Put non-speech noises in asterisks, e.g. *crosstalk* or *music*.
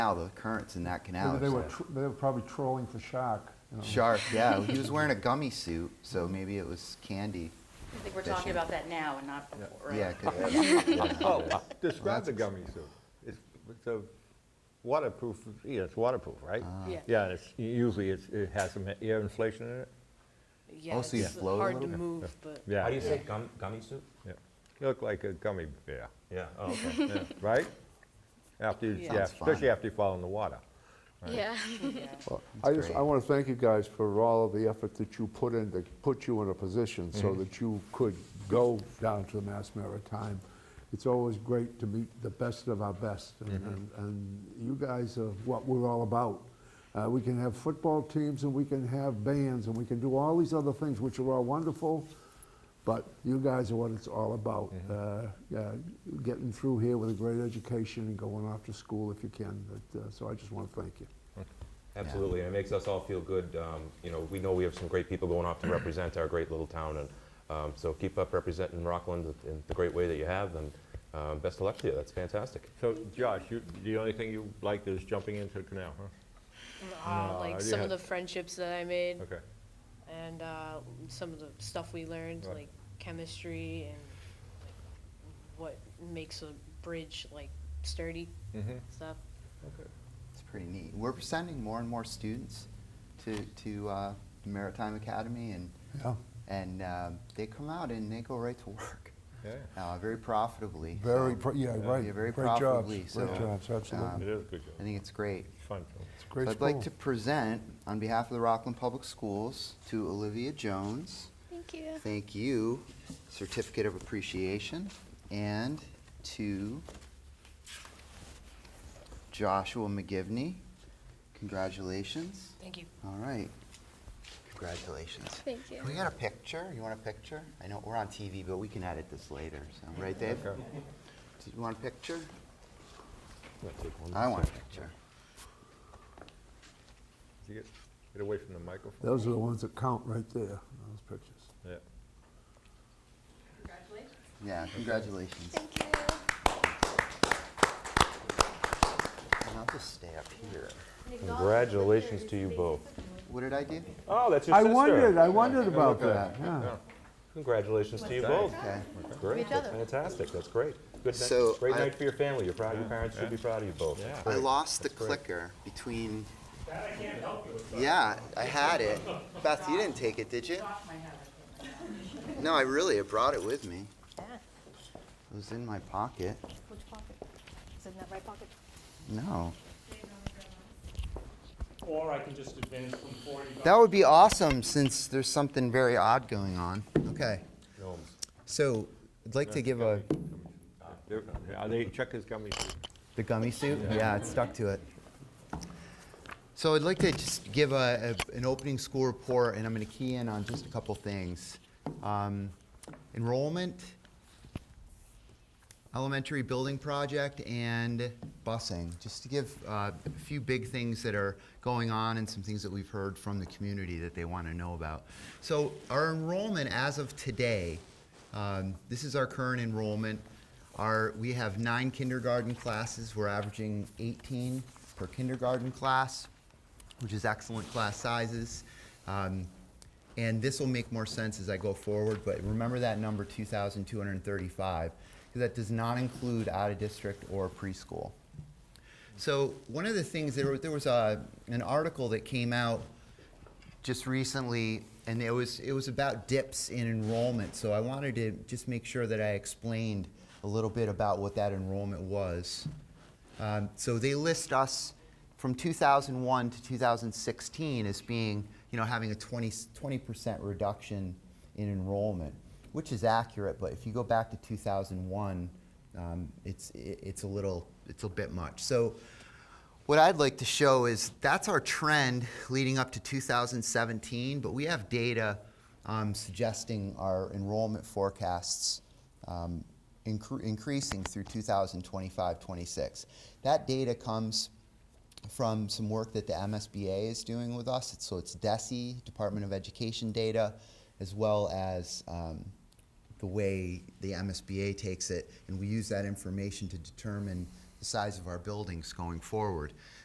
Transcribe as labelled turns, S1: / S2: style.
S1: canal, the currents in that canal.
S2: Maybe
S1: are
S2: they were,
S1: so-
S2: tr- they were probably trolling for shark. you know.
S3: *laughs*
S1: Shark, yeah. He was wearing a gummy suit, so maybe it was candy.
S4: I think we're talking
S1: Fishing.
S4: about that now and not before, right?
S1: Yeah, 'cause-
S5: *laughs*
S6: Oh, describe the gummy suit. It's, it's a waterproof, yeah, it's waterproof, right?
S5: Uh-huh.
S4: Yeah.
S6: Yeah, and it's, usually it's, it has some air inflation in it.
S7: Yeah,
S1: Also, you
S7: it's
S1: float a
S7: hard to
S1: little bit.
S7: move, but
S6: Yeah.
S5: How do you say gum, gummy soup?
S6: yeah. Look like a gummy bear,
S5: Yeah, oh, okay. yeah.
S6: *laughs* right? After, you-
S7: Yeah.
S6: yeah,
S1: Sounds fun.
S6: especially after you fall in the water.
S8: Yeah.
S7: *laughs*
S4: Yeah.
S3: Well, I just, I
S1: great.
S3: want to thank you guys for all of the effort that you put in, to put you in a position so that you could go down to the Mass Maritime. It's always great to meet the best of our best, and- and, and you guys are what we're all about. Uh, we can have football teams, and we can have bands, and we can do all these other things, which are all wonderful, but you guys are what it's all about. Uh, yeah, getting through here with a great education and going off to school if you can, but, uh, so I just want to thank you.
S5: Absolutely, and it makes us all feel good. Um, you know, we know we have some great people going *clears throat* off to represent our great little town, and um, so keep up representing Rockland in the great way that you have, and um, best of luck to you. That's fantastic.
S6: So Josh, you, the only thing you liked is jumping into the canal, huh?
S7: uh,
S6: No, I
S7: like some of
S6: had-
S7: the friendships that I made
S6: Okay.
S7: and uh, some of the stuff we learned,
S6: Right.
S7: like chemistry and like, what makes a bridge like sturdy
S6: Mm-hmm.
S7: stuff.
S6: Okay.
S1: It's pretty neat. We're sending more and more students to, to uh, Maritime Academy, and,
S3: Yeah.
S1: and um, they come out and they go right to work,
S6: Yeah,
S1: uh, very profitably. so,
S3: Very, pro- yeah,
S1: yeah,
S3: right.
S1: very
S3: Great jobs,
S1: profitably, so,
S3: Great jobs,
S1: um,
S3: absolutely.
S6: it is a good
S1: I
S6: job.
S1: think it's great.
S6: It's fun. too.
S3: It's a great
S1: I'd like
S3: school.
S1: to present, on behalf of the Rockland Public Schools, to Olivia Jones,
S8: Thank you.
S1: thank you, certificate of appreciation, and to Joshua McGivney. Congratulations.
S7: Thank you.
S1: All right. Congratulations.
S8: Thank you.
S1: Can we get a picture? You want a picture? I know we're on TV, but we can edit this later, so, right, Dave? Do
S6: Okay.
S1: you want a picture?
S6: I'm gonna take one.
S1: I want a picture.
S6: You Get get away from the microphone.
S3: Those are the ones that count right there, those pictures.
S6: Yeah.
S1: Yeah, congratulations.
S8: Thank you.
S1: And I'll just stay up here.
S5: Congratulations to you both.
S1: What did I do?
S5: Oh, that's your
S3: I
S5: sister.
S3: wondered, I wondered about
S1: at
S3: that, yeah.
S5: Congratulations to you both.
S1: Okay.
S5: Great,
S4: each
S5: that's
S4: other.
S5: fantastic. That's great. Good, night-
S1: So
S5: great
S1: I-
S5: night for your family. You're proud. Your parents should be proud of you both. That's
S1: I
S5: great.
S1: lost the clicker between. Yeah, I had it. Beth, you didn't take it, did you? No, I really, I brought it with me.
S9: Yeah.
S1: It was in my pocket.
S9: Which pocket? Is it in that right pocket?
S1: No.
S10: Or I can just advance from 40 to
S1: That would be awesome since there's something very odd going on. Okay.
S6: Gnomes.
S1: So I'd like to give a,
S6: uh, They're- Are they, check his gummy suit.
S1: the gummy suit? Yeah, it stuck to it. So I'd like to just give a, a- an opening school report, and I'm going to key in on just a couple things. Um, Enrollment, elementary building project, and busing. Just to give uh, a few big things that are going on and some things that we've heard from the community that they want to know about. So our enrollment as of today, um, this is our current enrollment. Our, we have nine kindergarten classes. We're averaging 18 per kindergarten class which is excellent class sizes. Um, and this will make more sense as I go forward, but remember that number 2,235, because that does not include out of district or preschool. So, one of the things, there, wa- there was a, an article that came out just recently, and it was it was about dips in enrollment. So I wanted to just make sure that I explained a little bit about what that enrollment was. Um, so they list us from 2001 to 2016 as being, you know, having a 20 percent reduction in enrollment, which is accurate. But if you go back to 2001, um, it's it, it's a little it's a bit much. So what I'd like to show is that's our trend leading up to 2017, but we have data um, suggesting our enrollment forecasts um, incre- increasing through 2025 26. That data comes from some work that the MSBA is doing with us. It's, so it's DESE, E, Department of Education data, as well as um, the way the MSBA takes it, and we use that information to determine the size of our buildings going forward.